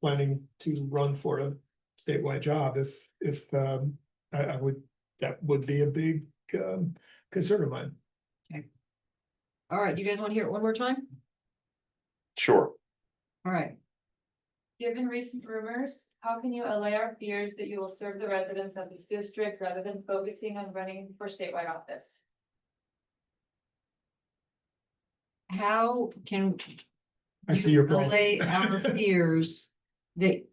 planning to run for a statewide job, if, if, um, I, I would, that would be a big, um, concern of mine. All right, you guys want to hear it one more time? Sure. All right, Given recent rumors, how can you allay our fears that you will serve the residents of this district rather than focusing on running for statewide office? how can I see you your problem. allay our fears that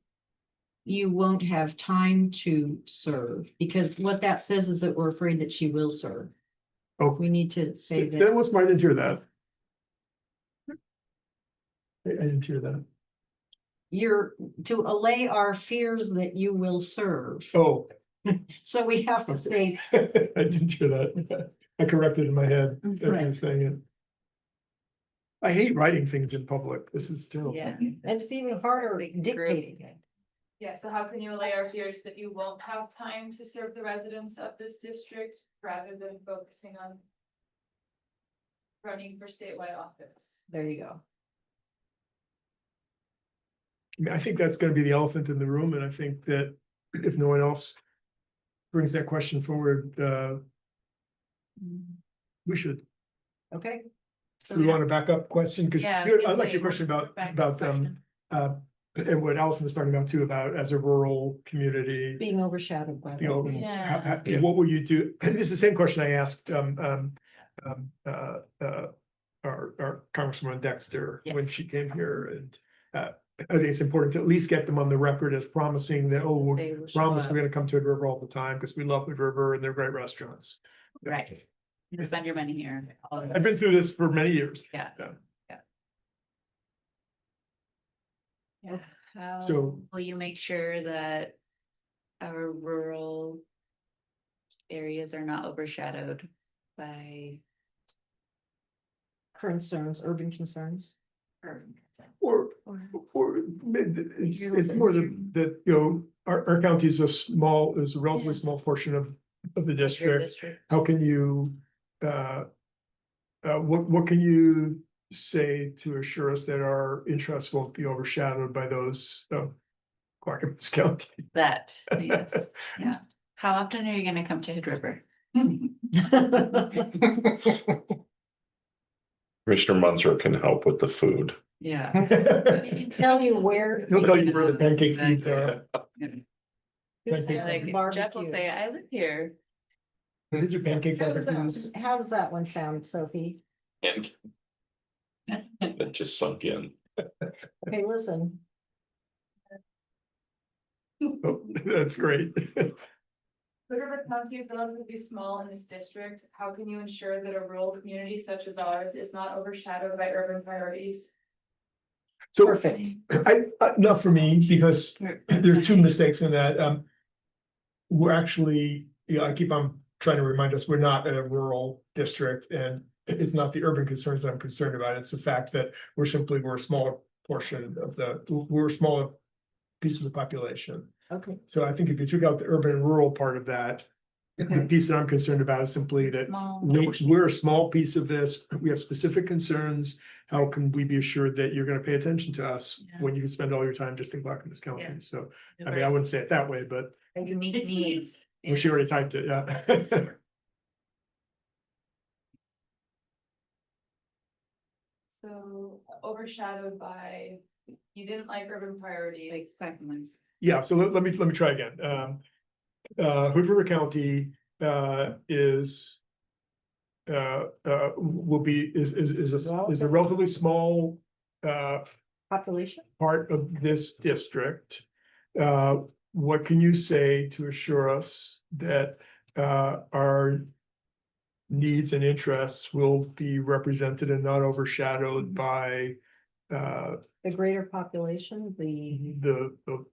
you won't have time to serve, because what that says is that we're afraid that she will serve. Oh. We need to say that. That was, I didn't hear that. I, I didn't hear that. you're to allay our fears that you will serve. Oh, So we have to say, I didn't hear that. I corrected in my head, as I Mm, Right. was saying it. I hate writing things in public. This is still. yeah, and it's even harder dictating it. Yeah, so how can you allay our fears that you won't have time to serve the residents of this district rather than focusing on running for statewide office? There you go. I mean, I think that's gonna be the elephant in the room, and I think that if no one else brings that question forward, uh, we should, Okay. So we want to back up question, because Oh, Yeah, I was I gonna like your say, question about, Back to about, the um, question. uh, and what Allison was talking about too, about as a rural community. being overshadowed by. you know, that. how- how- Yeah. what will you do? And this is the same question I asked, um, um, um, uh, uh, our, our Congresswoman Dexter when she came here and, uh, I think it's important to at least get them on the record as promising that, oh, we They will show promise we're up. gonna come to Hood River all the time because we love Hood River and they're great restaurants. Right. You can spend your money here. all of it. I've been through this for many years. Yeah. Yeah. So- How will you make sure that our rural areas are not overshadowed by Concerns, urban concerns. urban consent? Or, Or- or it's, You're it's looking more here. than, that, you know, our, our county is a small, is a relatively small portion of, of the Your district. district? how can you, uh, uh, what, what can you say to assure us that our interests won't be overshadowed by those oh, of Clackamas County? That, yes, yeah. How often are you gonna come to Hood River? Commissioner Munzer can help with the food. Yeah. They'll Tell you where. tell you where the pancake feeds are. who's Thank you. having Like Jeff will barbecue. say, I live here. Did you pancake How does barbecues? that- how does that one sound, Sophie? And that just sunk in. Okay, listen, Oh, That's great. Hood River County is relatively small in this district. How can you ensure that a rural community such as ours is not overshadowed by urban priorities? So perfect. I, I- not for me, because there are two mistakes in that, um. We're actually, you know, I keep on trying to remind us, we're not a rural district and it's not the urban concerns that I'm concerned about. It's the fact that we're simply, we're a smaller portion of the, we're a smaller piece of the population. Okay, So I think if you took out the urban and rural part of that, the Okay. piece that I'm concerned about is simply that Small. we, we're a small piece of this. We have specific concerns. How can we be assured that you're gonna pay attention to us Yeah. when you spend all your time just in Clackamas County? Yeah. So I mean, I wouldn't say it that way, but Unique needs. well, she already typed it, yeah. So overshadowed by, you didn't like urban Like priorities. segments. Yeah, so let, let me, let me try again. Um, uh, Hood River County, uh, is uh, uh, will be, is, is, is a, is a relatively small, uh, population, part of this district. Uh, what can you say to assure us that, uh, our needs and interests will be represented and not overshadowed by, uh, the greater population, the, the, the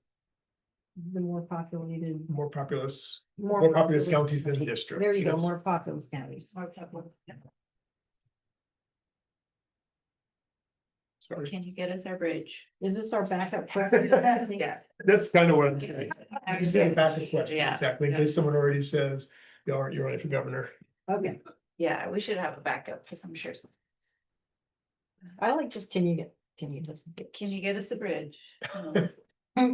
the more populated. more populous, Mm-hmm. More populous counties than the district, There you yeah. go, more populous counties. sorry, Can you get us our bridge? Is this our backup? Yeah. that's kind of what I'm saying. I Just a backup question, Yeah, exactly, in case someone already says, you are, you're running for governor. Okay, yeah, we should have a backup, because I'm sure, some- I like just, can you get, can you just, can you get us a bridge? Um,